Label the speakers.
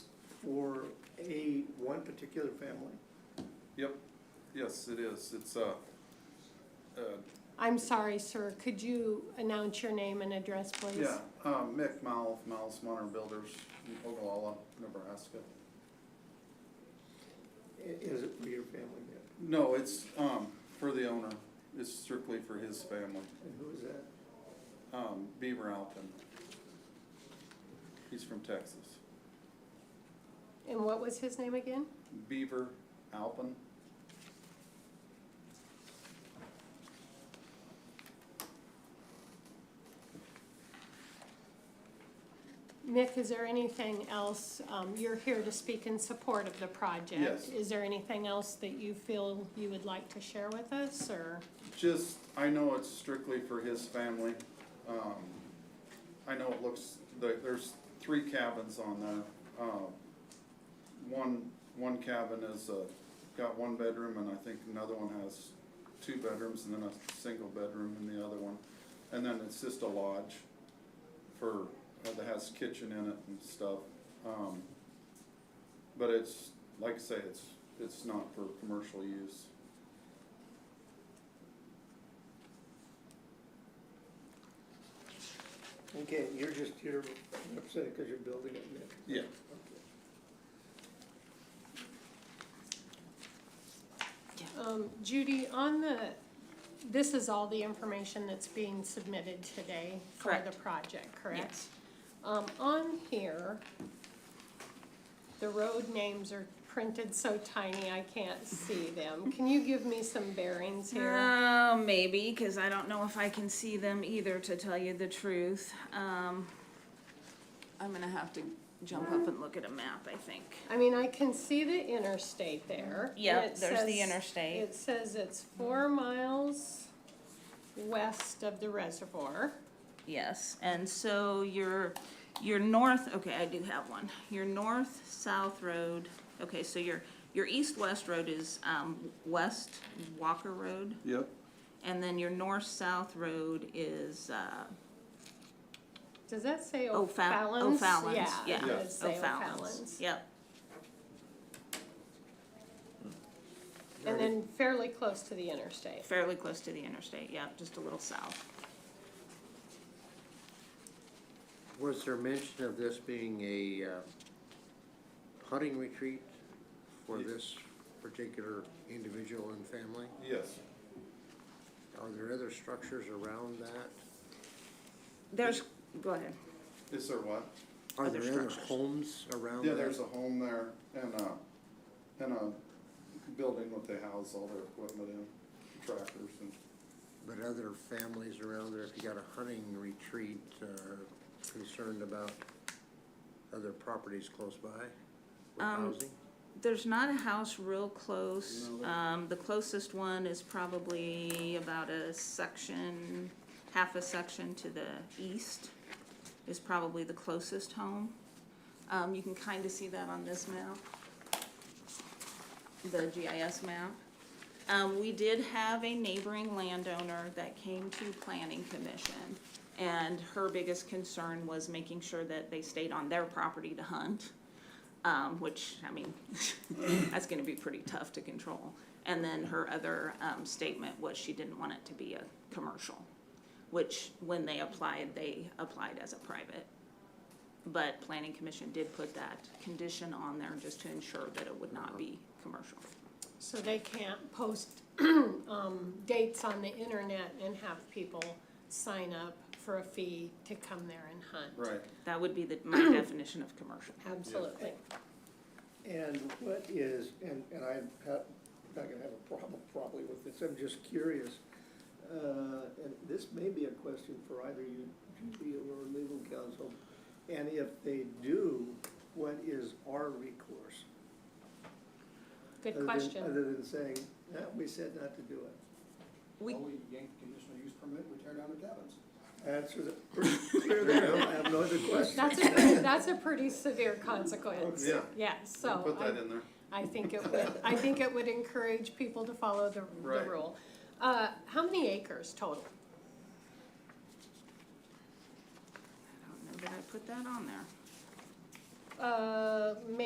Speaker 1: for a, one particular family?
Speaker 2: Yep, yes, it is. It's, uh, uh,
Speaker 3: I'm sorry, sir, could you announce your name and address, please?
Speaker 2: yeah, um, Mick Mall, Miles Modern Builders, in Ogallala, Nebraska.
Speaker 1: I- Is it for your family yet?
Speaker 2: No, it's, um, for the owner. It's strictly for his family,
Speaker 1: And who is that?
Speaker 2: um, Beaver Alpin. He's from Texas.
Speaker 3: And what was his name again?
Speaker 2: Beaver Alpin.
Speaker 3: Mick, is there anything else, um, you're here to speak in support of the project?
Speaker 2: Yes.
Speaker 3: Is there anything else that you feel you would like to share with us, or?
Speaker 2: Just, I know it's strictly for his family. Um, I know it looks, there, there's three cabins on there. Um, one, one cabin is, uh, got one bedroom and I think another one has two bedrooms and then a single bedroom in the other one. And then it's just a lodge for, uh, that has kitchen in it and stuff. Um, but it's, like I say, it's, it's not for commercial use.
Speaker 1: Okay, you're just here upset because you're building it, Nick.
Speaker 2: Yeah.
Speaker 3: Um, Judy, on the, this is all the information that's being submitted today for the
Speaker 4: Correct.
Speaker 3: project, correct?
Speaker 4: Yes.
Speaker 3: Um, on here, the road names are printed so tiny I can't see them. Can you give me some bearings here?
Speaker 4: Uh, maybe, because I don't know if I can see them either, to tell you the truth. Um, I'm gonna have to jump up and look at a map, I think.
Speaker 3: I mean, I can see the interstate there. and
Speaker 4: Yep,
Speaker 3: it
Speaker 4: there's the
Speaker 3: says-
Speaker 4: interstate.
Speaker 3: It says it's four miles west of the reservoir.
Speaker 4: Yes, and so your, your north, okay, I do have one. Your north-south road, okay, so your, your east-west road is, um, West Walker Road.
Speaker 2: Yep.
Speaker 4: And then your north-south road is, uh,
Speaker 3: Does that say
Speaker 4: O'Fa-
Speaker 3: O'Fallon's?
Speaker 4: O'Fallon's,
Speaker 3: Yeah, it
Speaker 4: yeah.
Speaker 3: does say
Speaker 4: O'Fallon's.
Speaker 3: O'Fallon's.
Speaker 4: Yep,
Speaker 3: And then fairly close to the interstate.
Speaker 4: fairly close to the interstate, yep, just a little south.
Speaker 5: Was there mention of this being a uh, hunting retreat for
Speaker 2: Ye-
Speaker 5: this particular individual and family?
Speaker 2: Yes.
Speaker 5: Are there other structures around that?
Speaker 4: There's, go ahead.
Speaker 2: Is there what?
Speaker 5: Are
Speaker 4: Other
Speaker 5: there other
Speaker 4: structures.
Speaker 5: homes around that?
Speaker 2: Yeah, there's a home there and a, and a building with they house all their equipment in, tractors and,
Speaker 5: But other families around there, if you got a hunting retreat, uh, concerned about other properties close by with
Speaker 4: Um,
Speaker 5: housing?
Speaker 4: There's not a house real close.
Speaker 2: No, there-
Speaker 4: Um, the closest one is probably about a section, half a section to the east is probably the closest home. Um, you can kind of see that on this map, the GIS map. Um, we did have a neighboring landowner that came to planning commission. And her biggest concern was making sure that they stayed on their property to hunt um, which, I mean, that's gonna be pretty tough to control. And then her other, um, statement was she didn't want it to be a commercial, which, when they applied, they applied as a private. But planning commission did put that condition on there just to ensure that it would not be commercial.
Speaker 3: So they can't post um, dates on the internet and have people sign up for a fee to come there and hunt.
Speaker 2: right.
Speaker 4: That would be the, my definition of commercial.
Speaker 3: Absolutely.
Speaker 1: And what is, and, and I'm ha- not gonna have a problem probably with this, I'm just curious. Uh, and this may be a question for either you, Judy, or legal counsel. And if they do, what is our recourse? Other
Speaker 3: Good
Speaker 1: than-
Speaker 3: question.
Speaker 1: Other than saying, "Yeah, we said not to do it.
Speaker 4: We,
Speaker 6: Well, we yank conditional use permit, we tear down the cabins.
Speaker 1: Answer the, clear there, I have no other questions.
Speaker 3: That's a, pretty- that's a pretty severe consequence.
Speaker 2: Yeah.
Speaker 3: Yeah, so
Speaker 2: Put that
Speaker 3: I,
Speaker 2: in there.
Speaker 3: I think it would, I think it would encourage people to follow the, the
Speaker 2: Right.
Speaker 3: rule. Uh, How many acres total?
Speaker 4: I don't know that I put that on there.
Speaker 3: Uh,